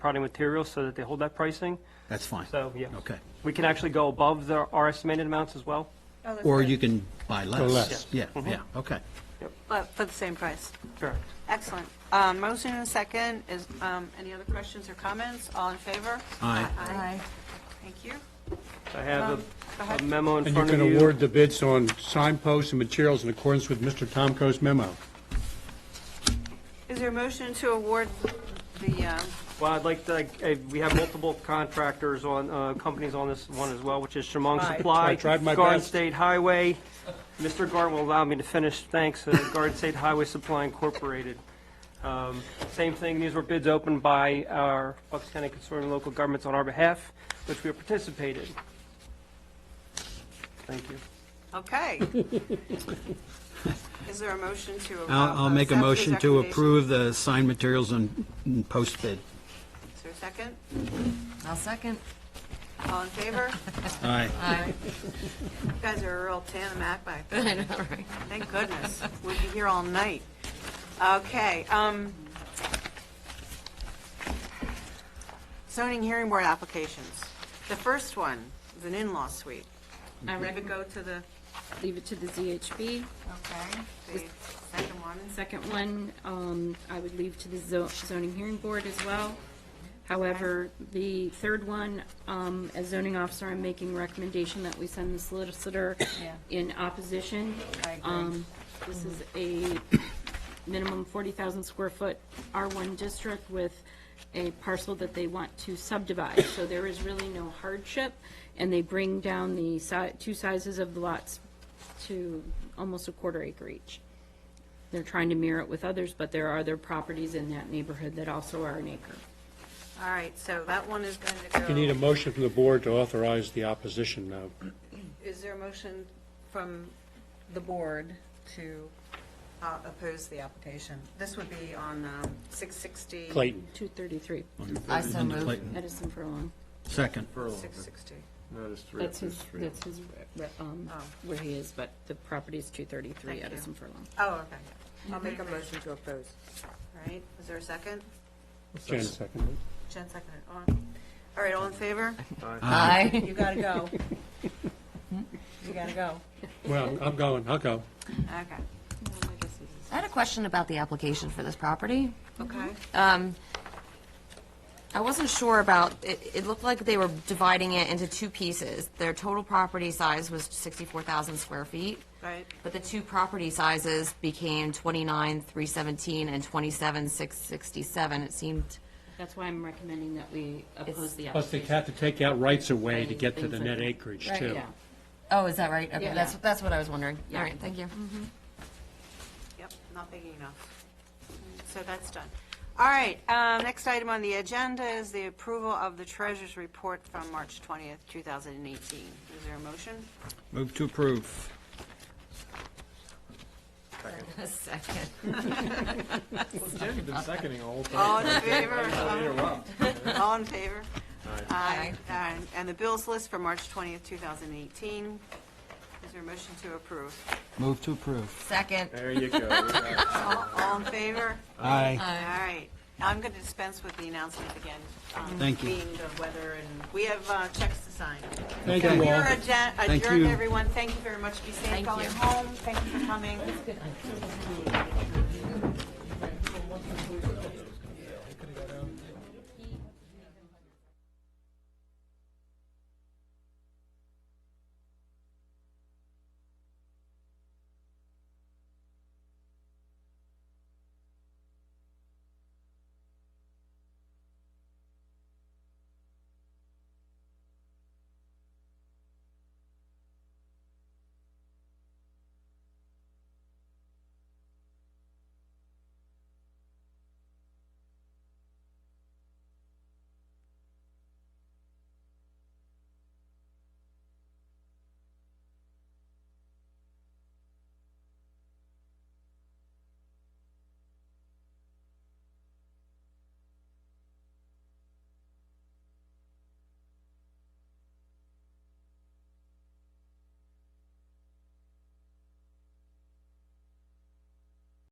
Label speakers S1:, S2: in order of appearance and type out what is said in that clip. S1: product materials so that they hold that pricing.
S2: That's fine.
S1: So, yeah.
S2: Okay.
S1: We can actually go above the, our estimated amounts as well.
S3: Oh, that's
S2: Or
S3: good.
S2: you can buy less.
S4: less.
S2: Yeah, yeah, okay.
S3: But for the same price.
S1: Correct.
S3: Excellent. Um, Motion and second. Is, um, any other questions or comments? All in favor?
S2: Aye.
S3: Thank you.
S1: I have
S3: Um, go
S1: a- a
S3: ahead.
S1: memo in
S4: And you
S1: front of
S4: can
S1: you.
S4: award the bids on signposts and materials in accordance with Mr. Tomko's memo.
S3: Is there a motion to award the, um,
S1: Well, I'd like to, eh, we have multiple contractors on, uh, companies on this one as well, which is Shamong
S3: Right.
S1: Supply,
S4: I tried my
S1: Garden
S4: best.
S1: State Highway. Mr. Garden will allow me to finish, thanks, uh, Garden State Highway Supply Incorporated. Um, Same thing, these were bids opened by our Bucks County Consortium of Local Governments on our behalf, which we participated. Thank you.
S3: okay. Is there a motion to? uh,
S2: I'll, I'll make a
S3: accept these
S2: motion to
S3: recommendations?
S2: approve the signed materials and and post bid.
S3: Is there a second?
S5: I'll second.
S3: All in favor?
S2: Aye.
S5: Aye.
S3: You guys are a real tandem act back there.
S5: I know, right?
S3: Thank goodness. We'll be here all night. Okay, um, zoning hearing board applications. The first one is an in-law suite.
S5: I
S3: Ready
S4: Mm-hmm.
S3: to
S5: recommend,
S3: go to the,
S6: leave it to the ZHB.
S3: okay, the second one?
S6: Second one, um, I would leave to the zo- zoning hearing board as well. However, the third one, um, as zoning officer, I'm making recommendation that we send the solicitor
S5: Yeah.
S6: in opposition.
S5: I agree.
S6: Um, This is a minimum 40,000 square foot R1 district with a parcel that they want to subdivide. So there is really no hardship, and they bring down the si, two sizes of the lots to almost a quarter acre each. They're trying to mirror it with others, but there are other properties in that neighborhood that also are an acre.
S3: All right, so that one is going to go.
S4: You need a motion from the board to authorize the opposition now.
S3: Is there a motion from the board to uh, oppose the application? This would be on um, 660.
S4: Clayton,
S6: 233,
S5: I so
S2: And then
S5: moved.
S2: Clayton.
S6: Edison Furlong.
S2: Second.
S3: 660.
S6: That's his, that's his, re- um,
S3: Oh.
S6: where he is, but the property is 233
S3: Thank you.
S6: Edison Furlong.
S3: Oh, okay. I'll make a motion to oppose. All right, is there a second?
S4: Jen seconded.
S3: Jen seconded, on. All right, all in favor?
S5: Aye.
S3: You gotta go. You gotta go.
S4: Well, I'm going, I'll go.
S3: Okay,
S5: I had a question about the application for this property.
S3: okay.
S5: Um, I wasn't sure about, it, it looked like they were dividing it into two pieces. Their total property size was 64,000 square feet.
S3: Right.
S5: But the two property sizes became 29,317 and 27,667. It seemed,
S6: That's why I'm recommending that we oppose the application.
S4: Plus, they have to take out rights away to get to the net acreage, too.
S6: Yeah.
S5: oh, is that right? Okay,
S6: Yeah.
S5: that's, that's what I was wondering.
S6: Yeah.
S5: All right, thank you.
S3: Yep, not big enough. So that's done. All right, um, next item on the agenda is the approval of the treasurer's report from March 20th, 2018. Is there a motion?
S2: Move to approve.
S5: Second.
S7: Been seconding all the time.
S3: All in favor?
S7: Interrupt.
S3: All in favor?
S5: Aye.
S3: Aye. And the bills list for March 20th, 2018. Is there a motion to approve?
S2: Move to approve.
S5: Second.
S7: There you go.
S3: All all in favor?
S2: Aye.
S3: All right. I'm going to dispense with the announcement again. um,
S2: Thank you.
S3: Being the weather, and we have uh, checks to sign.
S4: Thank
S3: So
S4: you
S3: we
S4: all.
S3: are adja-
S2: Thank
S3: adjourned,
S2: you.
S3: everyone. Thank you very much. Be safe
S5: Thank
S3: going
S5: you.
S3: home. Thank you for coming.